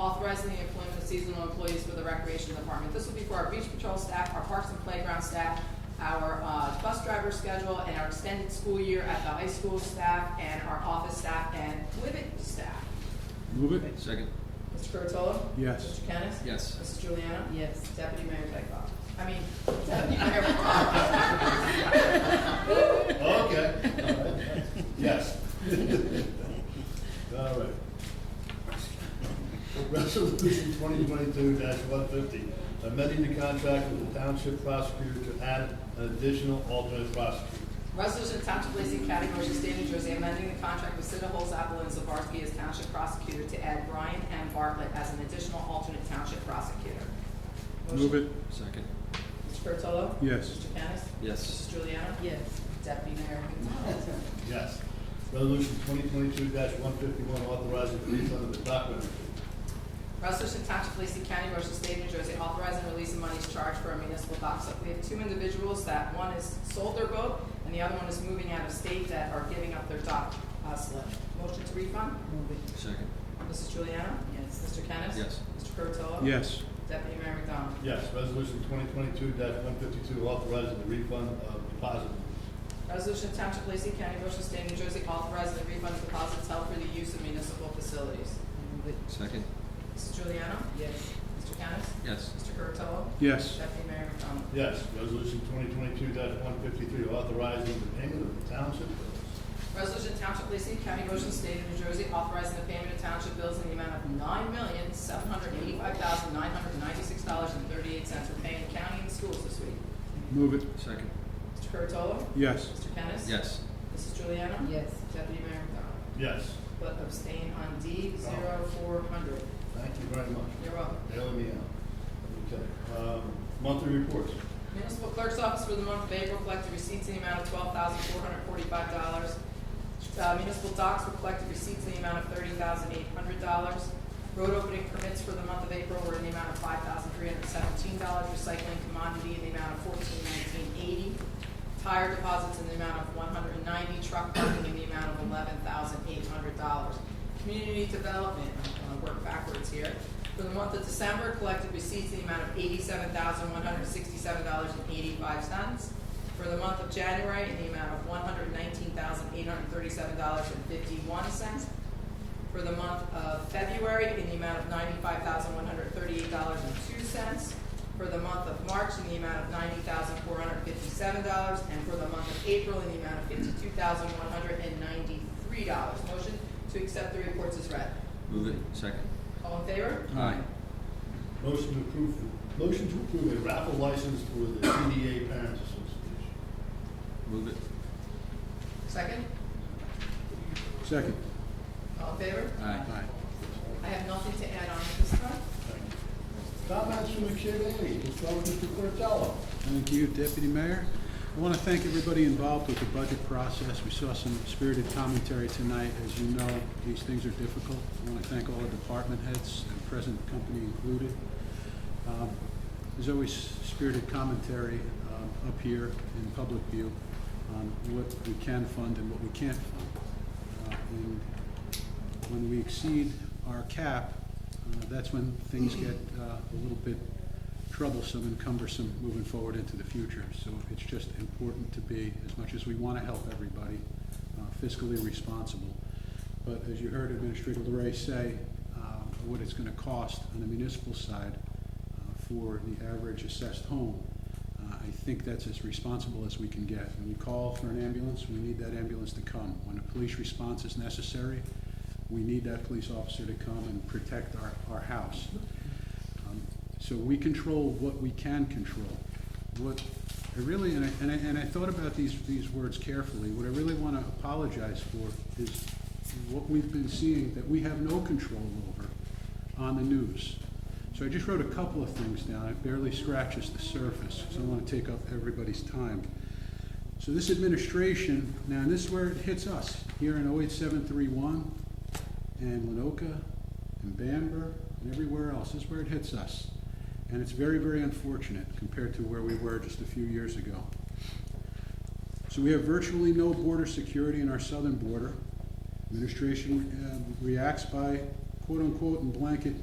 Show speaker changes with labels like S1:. S1: authorizing the employment of seasonal employees for the recreation department. This will be for our beach patrol staff, our parks and playground staff, our uh, bus driver schedule, and our extended school year at the high school staff, and our office staff, and Libet staff.
S2: Move it.
S3: Second.
S1: Mr. Curatolo?
S2: Yes.
S1: Mr. Kennis?
S3: Yes.
S1: Mrs. Juliana?
S4: Yes.
S1: Deputy Mayor Dykoff. I mean, Deputy Mayor Parker.
S5: Okay, all right. yes. All right. Resolution twenty twenty-two one fifty, amending the contract with the township prosecutor to add an additional alternate prosecutor.
S1: Resolution to Township of Lacey County, Ocean State, New Jersey, amending the contract with Cida Holes Apple and Zabarsky as township prosecutor to add Brian M. Bartlett as an additional alternate township prosecutor.
S2: Move it.
S3: Second.
S1: Mr. Curatolo?
S2: Yes.
S1: Mr. Kennis?
S3: Yes.
S1: Juliana?
S4: Yes.
S1: Deputy Mayor Gonzalez?
S5: Yes. Resolution twenty twenty-two one fifty-one, authorizing the refund of the dock levy.
S1: Resolution to Township of Lacey County, Ocean State, New Jersey, authorizing release of monies charged for a municipal dock site. We have two individuals that one has sold their boat and the other one is moving out of state that are giving up their dock uh, slip. Motion to refund?
S4: Move it.
S3: Second.
S1: Mrs. Juliana?
S4: Yes.
S1: Mr. Kennis?
S3: Yes.
S1: Mr. Curatolo?
S2: Yes.
S1: Deputy Mayor McDonald?
S5: Yes, resolution twenty twenty-two one fifty-two, authorizing the refund of deposit.
S1: Resolution of Township of Lacey County, Ocean State, New Jersey, authorizing the refund of deposits held for the use of municipal facilities.
S4: Move it.
S3: Second.
S1: Mrs. Juliana?
S4: Yes.
S1: Mr. Kennis?
S3: Yes.
S1: Mr. Curatolo?
S2: Yes.
S1: Deputy Mayor McDonald?
S5: Yes, resolution twenty twenty-two one fifty-three, authorizing the payment of the township bills.
S1: Resolution of Township of Lacey County, Ocean State, New Jersey, authorizing the payment of township bills in the amount of nine million, seven hundred eighty-five thousand, nine hundred ninety-six dollars and thirty-eight cents for paying county and schools this week.
S2: Move it.
S3: Second.
S1: Mr. Curatolo?
S2: Yes.
S1: Mr. Kennis?
S3: Yes.
S1: Mrs. Juliana?
S4: Yes.
S1: Deputy Mayor McDonald?
S5: Yes,
S1: But abstain on D zero four hundred.
S5: thank you very much.
S1: You're welcome.
S5: Bailing me out. Okay, um, monthly reports.
S1: Municipal Clerk's Office for the month of April collected receipts in the amount of twelve thousand four hundred forty-five dollars. Uh, Municipal docks were collected receipts in the amount of thirty thousand eight hundred dollars. Road opening permits for the month of April were in the amount of five thousand three hundred seventeen dollars. Recycling commodity in the amount of fourteen nineteen eighty. Tire deposits in the amount of one hundred ninety. Truck parking in the amount of eleven thousand eight hundred dollars. Community development, uh, I'm gonna work backwards here. For the month of December, collected receipts in the amount of eighty-seven thousand, one hundred sixty-seven dollars and eighty-five cents. For the month of January, in the amount of one hundred nineteen thousand, eight hundred thirty-seven dollars and fifty-one cents. For the month of February, in the amount of ninety-five thousand, one hundred thirty-eight dollars and two cents. For the month of March, in the amount of ninety thousand, four hundred fifty-seven dollars. And for the month of April, in the amount of fifty-two thousand, one hundred and ninety-three dollars. Motion to accept the reports is read.
S3: Move it. Second.
S1: All in favor?
S3: Aye.
S5: Motion to approve, motion to approve a raffle license for the CDA Parents Association.
S3: Move it.
S1: Second?
S2: Second.
S1: All in favor?
S3: Aye.
S2: Aye.
S1: I have nothing to add on at this time.
S5: Thank you. Comments from the committee, let's start with Mr. Curatolo.
S2: Thank you, Deputy Mayor. I want to thank everybody involved with the budget process. We saw some spirited commentary tonight. As you know, these things are difficult. I want to thank all the department heads, and present company included. Um, There's always spirited commentary um, up here in public view on what we can fund and what we can't fund. Uh, And when we exceed our cap, uh, that's when things get uh, a little bit troublesome and cumbersome moving forward into the future. So it's just important to be, as much as we want to help everybody, uh, fiscally responsible. But as you heard Administrator Larray say, uh, what it's going to cost on the municipal side uh, for the average assessed home, uh, I think that's as responsible as we can get. When we call for an ambulance, we need that ambulance to come. When a police response is necessary, we need that police officer to come and protect our, our house. Um, So we control what we can control. What, I really, and I, and I, and I thought about these, these words carefully, what I really wanna apologize for is what we've been seeing that we have no control over on the news. So I just wrote a couple of things down, it barely scratches the surface, so I don't wanna take up everybody's time. So this administration, now, and this is where it hits us, here in 08731 and Lenoka and Bamber and everywhere else, this is where it hits us. And it's very, very unfortunate compared to where we were just a few years ago. So we have virtually no border security in our um, southern border. Administration uh, reacts by quote-unquote and blanket